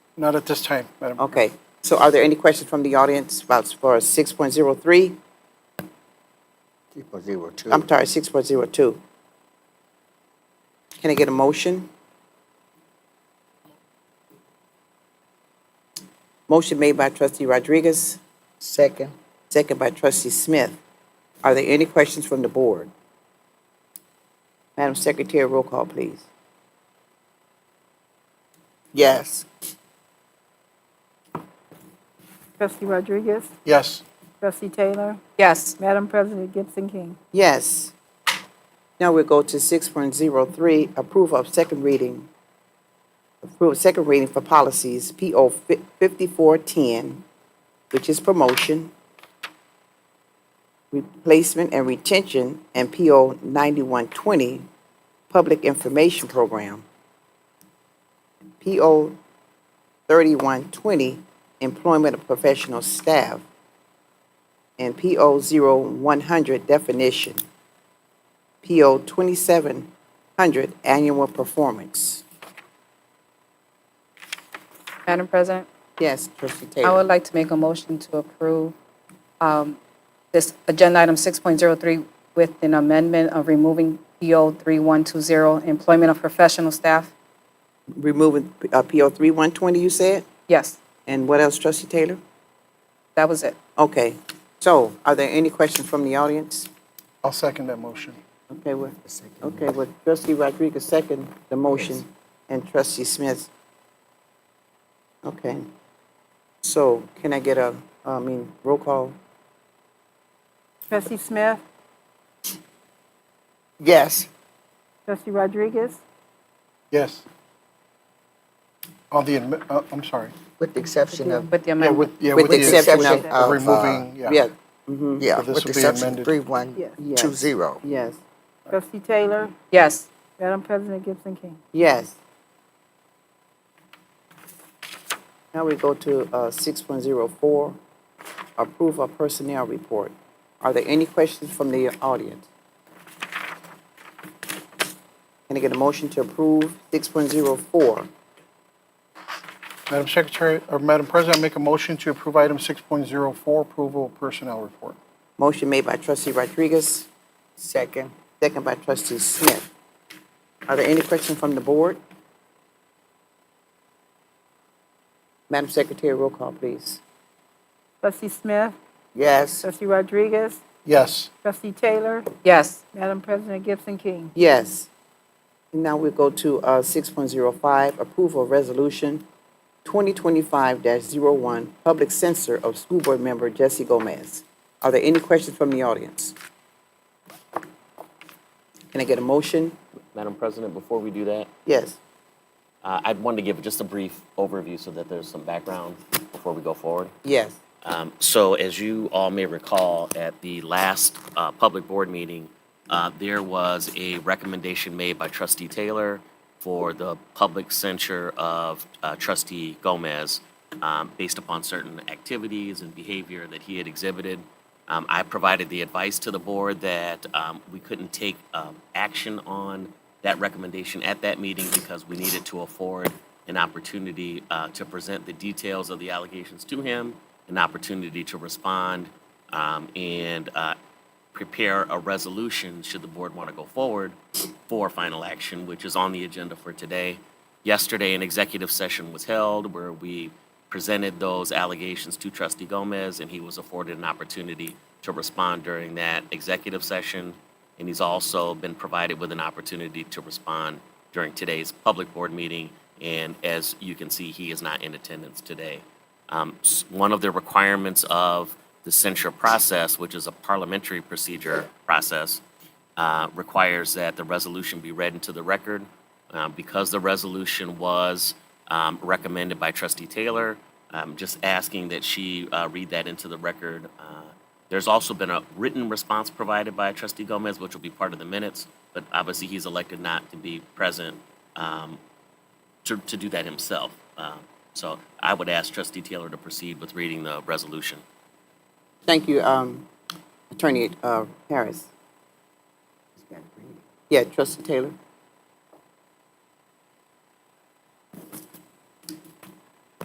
Not at this time, Madam. Okay. So are there any questions from the audience about for 6.03? Uh, I'm sorry, 6.02. Can I get a motion? Motion made by trustee Rodriguez, Second. second by trustee Smith. Are there any questions from the board? Madam Secretary, roll call, please. Yes. Trustee Rodriguez? Yes. Trustee Taylor? Yes. Madam President Gibson King? Yes. Now we go to six point zero three, approval of second reading. Approve second reading for policies, PO fifty-four ten, which is promotion, replacement and retention, and PO ninety-one twenty, public information program. PO thirty-one twenty, employment of professional staff and PO 0100 definition. PO 2700 annual performance. Madam President, Yes, trustee I would Taylor. like to make a motion to approve um, this agenda item 6.03 with an amendment of removing PO 3120, employment of professional staff. Removing uh, PO 3120, you said? Yes, And what else, trustee Taylor? that was it. Okay, so are there any questions from the audience? I'll second that motion. Okay, well, okay, well, trustee Rodriguez second the motion and trustee Smith. Okay. So can I get a, I mean, roll call? Trustee Smith? Yes. Trustee Rodriguez? Yes. On the, admi- uh, I'm sorry. With the exception of, With the Yeah, amendment. with, yeah, With the exception of. exception of, uh, Removing, yeah. Yeah, mhm, yeah, So this with the will be exception of amended. three one Yes. two zero. yes. Trustee Taylor? Yes. Madam President Gibson King? Yes. Now we go to uh, 6.04, approve of personnel report. Are there any questions from the audience? Can I get a motion to approve 6.04? Madam Secretary, or Madam President, I make a motion to approve item 6.04, approval of personnel report. Motion made by trustee Rodriguez, Second. second by trustee Smith. Are there any questions from the board? Madam Secretary, roll call, please. Trustee Smith? Yes. Trustee Rodriguez? Yes. Trustee Taylor? Yes. Madam President Gibson King? Yes. Now we go to uh, 6.05, approval of resolution 2025-01, public censor of school board member Jesse Gomez. Are there any questions from the audience? Can I get a motion? Madam President, before we do that, Yes. uh, I'd want to give just a brief overview so that there's some background before we go forward. Yes. Um, So as you all may recall, at the last uh, public board meeting, uh, there was a recommendation made by trustee Taylor for the public censure of uh, trustee Gomez um, based upon certain activities and behavior that he had exhibited. Um, I provided the advice to the board that um, we couldn't take um, action on that recommendation at that meeting because we needed to afford an opportunity uh, to present the details of the allegations to him, an opportunity to respond, um, and uh, prepare a resolution, should the board want to go forward, for final action, which is on the agenda for today. Yesterday, an executive session was held where we presented those allegations to trustee Gomez, and he was afforded an opportunity to respond during that executive session. And he's also been provided with an opportunity to respond during today's public board meeting. And as you can see, he is not in attendance today. Um, s- One of the requirements of the censure process, which is a parliamentary procedure process, uh, requires that the resolution be read into the record. Uh, Because the resolution was um, recommended by trustee Taylor, I'm just asking that she uh, read that into the record. Uh, There's also been a written response provided by trustee Gomez, which will be part of the minutes, but obviously he's elected not to be present um, to, to do that himself. Um, So I would ask trustee Taylor to proceed with reading the resolution. Thank you, um, Attorney uh, Harris. Yeah, trustee Taylor.